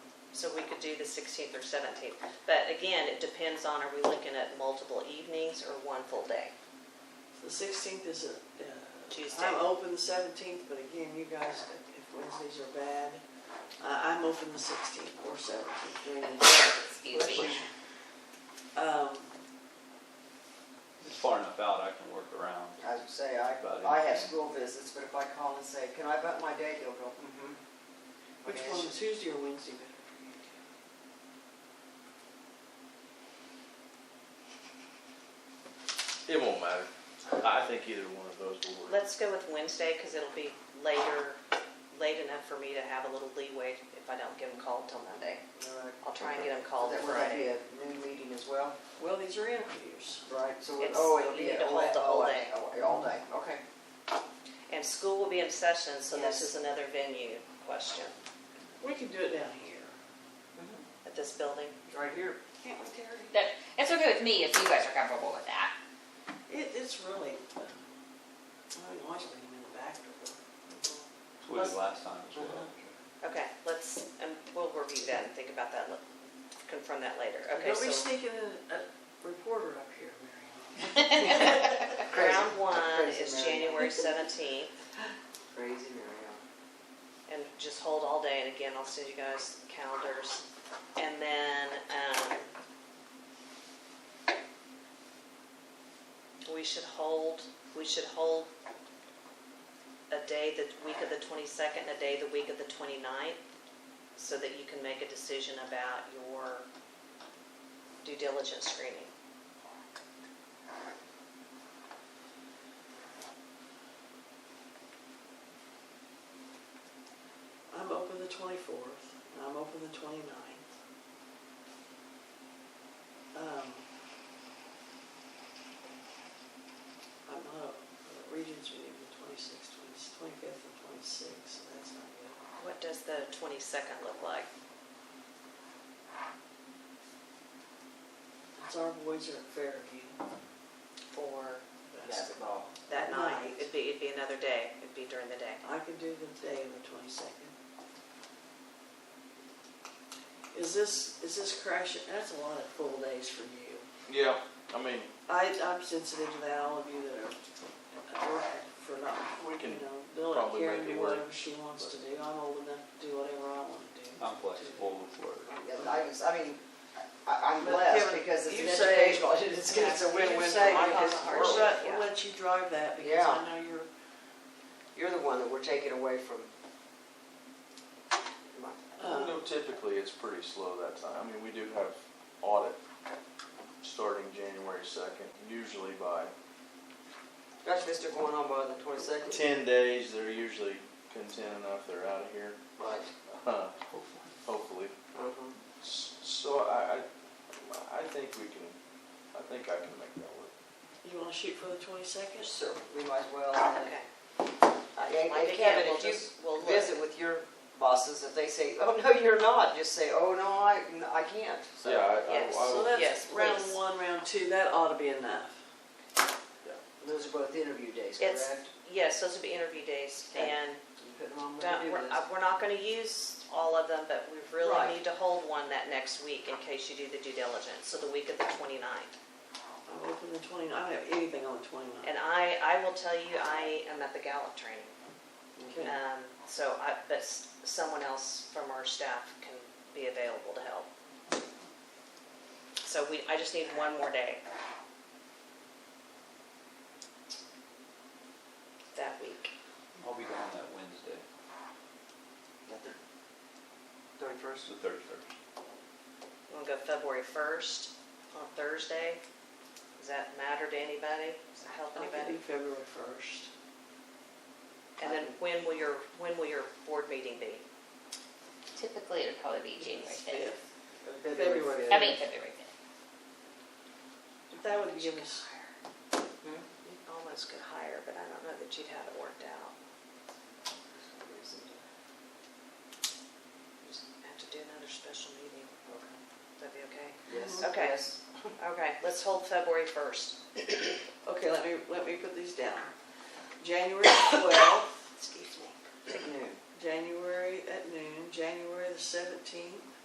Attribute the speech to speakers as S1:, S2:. S1: so we could do the 16th or 17th. But again, it depends on, are we looking at multiple evenings or one full day?
S2: The sixteenth is a, uh,
S1: Tuesday.
S2: I'm open the seventeenth, but again, you guys, if Wednesdays are bad, I, I'm open the sixteenth or seventeenth during the day.
S3: Excuse me.
S2: Um,
S4: It's far enough out, I can work around.
S5: I would say, I,
S4: About
S5: I have
S4: anything.
S5: school visits, but if I call and say, can I bump my day, they'll go, mm-hmm.
S2: which one, Tuesday or Wednesday better?
S6: It won't matter. I think either one of those will work.
S1: Let's go with Wednesday because it'll be later, late enough for me to have a little leeway if I don't get them called till Monday. I'll try and get them called
S5: uh, That would that be
S1: Friday.
S5: a noon meeting as well,
S2: Well, these are interviews.
S5: right? So, we-
S1: It's-
S5: oh, it'll
S1: you
S5: be.
S1: need to
S5: all
S1: hold
S5: that-
S1: the
S5: all
S1: whole
S5: that- All day, okay.
S1: And school will be in session, so this is
S5: Yes.
S1: another venue question
S2: We can do it down here.
S1: at this building.
S5: Right here.
S2: Can't we, Terry?
S3: That, it's okay with me if you guys are comfortable with that.
S2: It, it's really, uh, I mean, always bring them in the back door.
S4: That's what we did last time as
S3: Uh-huh.
S4: well.
S1: Okay, let's, and we'll review that and think about that, li- confirm that later. Okay,
S2: Don't be
S1: so
S2: sneaking in a reporter up here, Mary.
S5: Crazy.
S1: round one
S5: Crazy
S1: is
S5: Mary Ann.
S1: January 17th.
S5: Crazy Mary
S1: and just hold all day, and again, I'll send you guys calendars. And then, um, we should hold, we should hold a day the week of the twenty-second, a day the week of the 29th, so that you can make a decision about your due diligence screening.
S2: I'm open the twenty-fourth, and I'm open the twenty-ninth. Um, I'm not, uh, Regents meeting the twenty-sixth, twenty-fifth, and twenty-sixth, so that's not good.
S1: What does the twenty-second look like?
S2: It's our boys are at Fairview.
S1: For
S2: That's-
S5: Ann.
S1: that night,
S2: Night.
S1: it'd be, it'd be another day, it'd be during the day.
S2: I can do the day of the twenty-second. Is this, is this crash, that's a lot of full days for you.
S6: Yeah, I mean,
S2: I, I'm sensitive to that, all of you that are at work for not,
S6: We
S2: you
S6: can
S2: know, Bill and
S6: probably
S2: Karen
S6: make it
S2: do
S6: work.
S2: whatever she wants to do. I'm old enough to do whatever I want to do.
S4: I'm flexible with work.
S5: Yeah, I was, I mean, I, I'm
S2: But
S5: blessed
S2: Kevin,
S5: because it's
S2: you
S5: an
S2: say-
S5: educational, it's, it's a
S2: You
S5: win-win
S2: say
S5: for my
S2: because
S5: kids.
S2: We'll let, we'll let you drive that because
S5: Yeah.
S2: I know you're,
S5: You're the one that we're taking away from. Come on.
S6: you
S2: uh,
S6: know, typically it's pretty slow that time. I mean, we do have audit starting January second. Usually by
S5: Gosh, this is going on by the twenty-second.
S6: ten days, they're usually content enough, they're out of here,
S5: Right.
S6: Uh, hopefully.
S5: Mhm.
S6: S- So I, I, I think we can, I think I can make that work.
S2: you wanna shoot for the twenty-second?
S5: Yes, sir. We might as well. uh,
S1: Okay.
S5: And-
S1: Like
S5: and
S1: again,
S5: Kevin,
S1: we'll
S5: if you
S1: just- we'll look.
S5: visit with your bosses, if they say, oh, no, you're not, just say, oh, no, I, I can't. So-
S6: Yeah, I, I,
S1: yes.
S6: I
S2: So
S6: would-
S1: yes,
S2: that's round
S1: please.
S2: one, round two, that ought to be enough.
S5: Those are both interview days,
S1: It's-
S5: correct?
S1: Yes, those would be interview days,
S5: Okay.
S1: and
S5: You put them on when
S1: don't-
S5: you do
S1: we're,
S5: this.
S1: uh, we're not gonna use all of them, but we
S5: Right.
S1: really need to hold one that next week in case you do the due diligence, so the week of the 29th.
S2: I'm open the twenty, I don't have anything on the twenty-ninth.
S5: uh,
S1: And I, I will tell you, I am at the Gallup training,
S5: Hmm.
S1: um, so I, but s- someone else from our staff can be available to help. So we, I just need one more day. That week.
S4: I'll be gone that Wednesday,
S5: Thirty-first?
S4: the thirty-first.
S1: You want to go February 1st on Thursday? Does that matter to anybody? Does that help
S2: I could
S1: anybody?
S2: do February first.
S1: And then when will your, when will your board meeting be?
S3: Typically, it'd probably be January fifth.
S2: February.
S3: I mean, February fifth.
S2: That would give us,
S1: You Almost could hire, but I don't know that you'd have it worked out. Just Have to do another special meeting. That'd be okay?
S5: Yes.
S1: Okay.
S5: Yes.
S1: Okay, let's hold February 1st.
S2: okay, let me, let me put these down. January twelfth,
S1: Excuse me.
S5: At noon.
S2: January at noon, January the seventeenth,